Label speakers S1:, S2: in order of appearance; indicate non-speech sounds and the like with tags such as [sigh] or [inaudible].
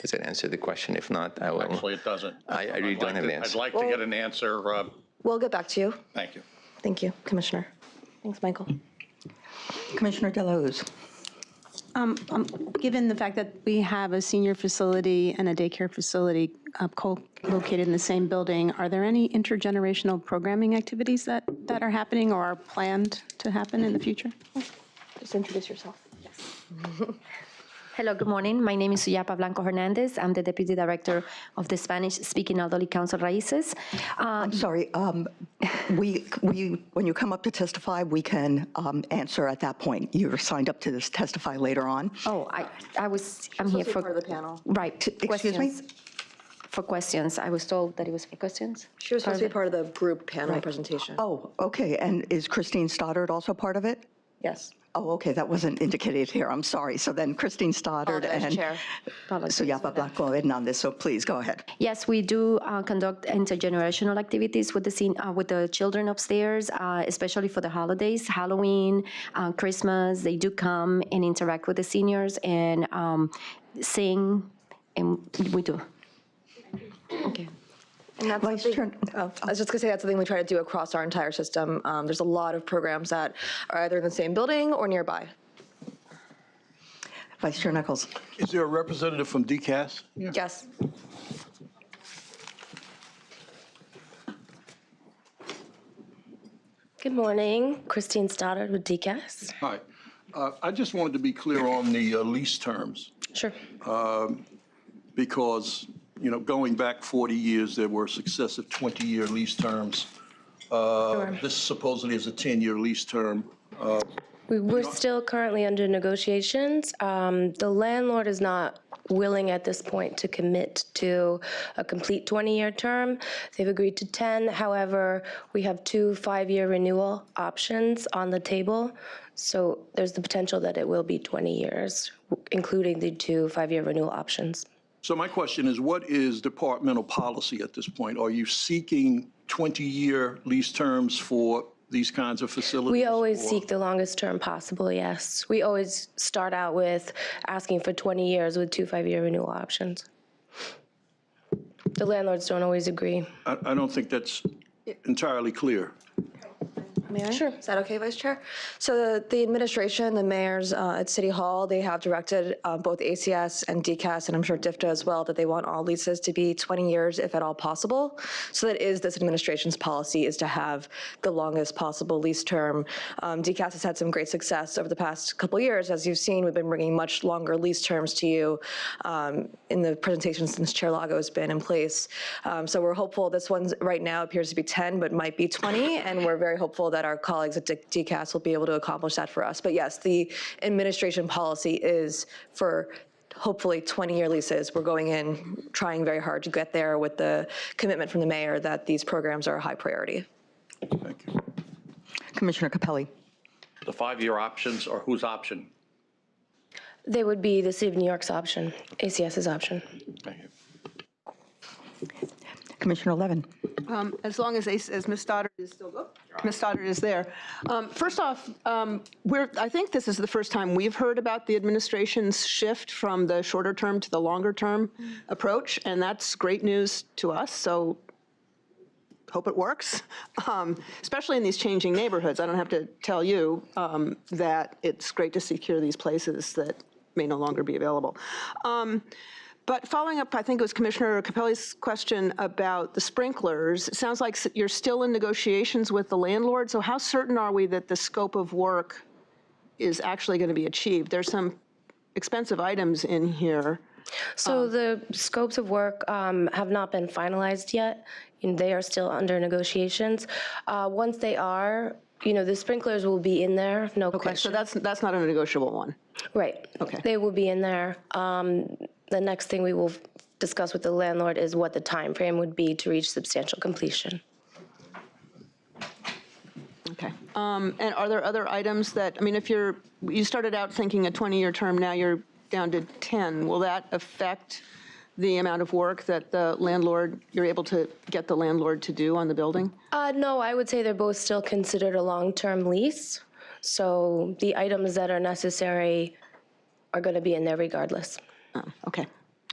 S1: Does that answer the question? If not, I will.
S2: Actually, it doesn't.
S1: [laughs] I- I really
S2: I'd
S1: don't
S2: like
S1: have an
S2: to- I'd
S1: answer.
S2: like to get an answer. uh,
S3: We'll get back to you.
S2: Thank you.
S3: Thank you, Commissioner. Thanks, Michael.
S4: Commissioner Delahoo's.
S5: Um, Given the fact that we have a senior facility and a daycare facility uh, co-located in the same building, are there any intergenerational programming activities that, that are happening or are planned to happen in the future?
S3: Just introduce yourself.
S6: Hello, good morning. My name is Suyapa Blanco Hernandez. I'm the Deputy Director of the Spanish-speaking Elderly Council Raices. Uh,
S4: Sorry, um, we, we, when you come up to testify, we can um, answer at that point. You're signed up to this testify later on.
S6: Oh, I, I was, I'm here for.
S3: part of the panel.
S6: Right.
S4: excuse me?
S6: questions. For questions. I was told that it was for questions.
S3: She was supposed to be part of the group panel presentation.
S4: Oh, okay, and is Christine Stoddard also part of it?
S3: Yes.
S4: Oh, okay, that wasn't indicated here, I'm sorry. So then Christine Stoddard
S3: Apologize,
S4: and
S3: Chair.
S6: Apologies
S4: Suyapa Blanco Hernandez, so please, go ahead.
S6: Yes, we do uh, conduct intergenerational activities with the scene, uh, with the children upstairs, uh, especially for the holidays, Halloween, uh, Christmas. They do come and interact with the seniors and um, sing, and we do. Okay.
S3: And that's
S4: Vice
S3: something-
S4: Chair-
S3: oh, I was just gonna say, that's something we try to do across our entire system. Um, There's a lot of programs that are either in the same building or nearby.
S4: Vice Chair Nichols.
S7: Is there a representative from DCAS?
S3: Yes.
S8: Good morning, Christine Stoddard with DCAS.
S7: Hi. Uh, I just wanted to be clear on the uh, lease terms, Um,
S8: Sure.
S7: because, you know, going back 40 years, there were successive 20-year lease terms. Uh, This supposedly is a 10-year lease term.
S8: We, we're still currently under negotiations. Um, the landlord is not willing at this point to commit to a complete 20-year term. They've agreed to 10. However, we have two five-year renewal options on the table. So there's the potential that it will be 20 years, including the two five-year renewal options.
S7: So my question is, what is departmental policy at this point? Are you seeking 20-year lease terms for these kinds of facilities?
S8: We always
S7: or-
S8: seek the longest term possible, yes. We always start out with asking for 20 years with two five-year renewal options. The landlords don't always agree.
S7: I I don't think that's entirely clear.
S3: May I? Sure. Is that okay, Vice Chair? So the- the administration, the mayors uh, at City Hall, they have directed uh, both ACS and DCAS, and I'm sure DIFTA as well, that they want all leases to be 20 years if at all possible. So that is this administration's policy, is to have the longest possible lease term. Um, DCAS has had some great success over the past couple years. As you've seen, we've been bringing much longer lease terms to you um, in the presentation since Chair Lago has been in place. Um, So we're hopeful, this one right now appears to be 10, but might be 20, and we're very hopeful that our colleagues at D- DCAS will be able to accomplish that for us. But yes, the administration policy is for hopefully 20-year leases. We're going in, trying very hard to get there with the commitment from the mayor that these programs are a high priority.
S7: Thank you.
S4: Commissioner Capelli.
S2: The five-year options are whose option?
S8: They would be the City of New York's option, ACS's option.
S2: Thank you.
S4: Commissioner Levin.
S9: as long as, Ace- as Ms. Stoddard is still, oh, Ms. Stoddard is there. Um, First off, um, we're, I think this is the first time we've heard about the administration's shift from the shorter term to the longer term approach, and that's great news to us, so hope it works, Um, especially in these changing neighborhoods. I don't have to tell you um, that it's great to secure these places that may no longer be available. Um, but following up, I think it was Commissioner Capelli's question about the sprinklers, it sounds like s- you're still in negotiations with the landlord, so how certain are we that the scope of work is actually going to be achieved? There's some expensive items in here.
S8: So
S9: Um,
S8: the scopes of work um, have not been finalized yet, and they are still under negotiations. Uh, Once they are, you know, the sprinklers will be in there, no
S9: Okay,
S8: question.
S9: so that's, that's not a negotiable one.
S8: Right.
S9: Okay.
S8: They will be in there. Um, The next thing we will discuss with the landlord is what the time frame would be to reach substantial completion.
S9: Okay. Um, And are there other items that, I mean, if you're, you started out thinking a 20-year term, now you're down to 10, will that affect the amount of work that the landlord, you're able to get the landlord to do on the building?
S8: Uh, No, I would say they're both still considered a long-term lease, so the items that are necessary are going to be in there regardless.
S9: Okay.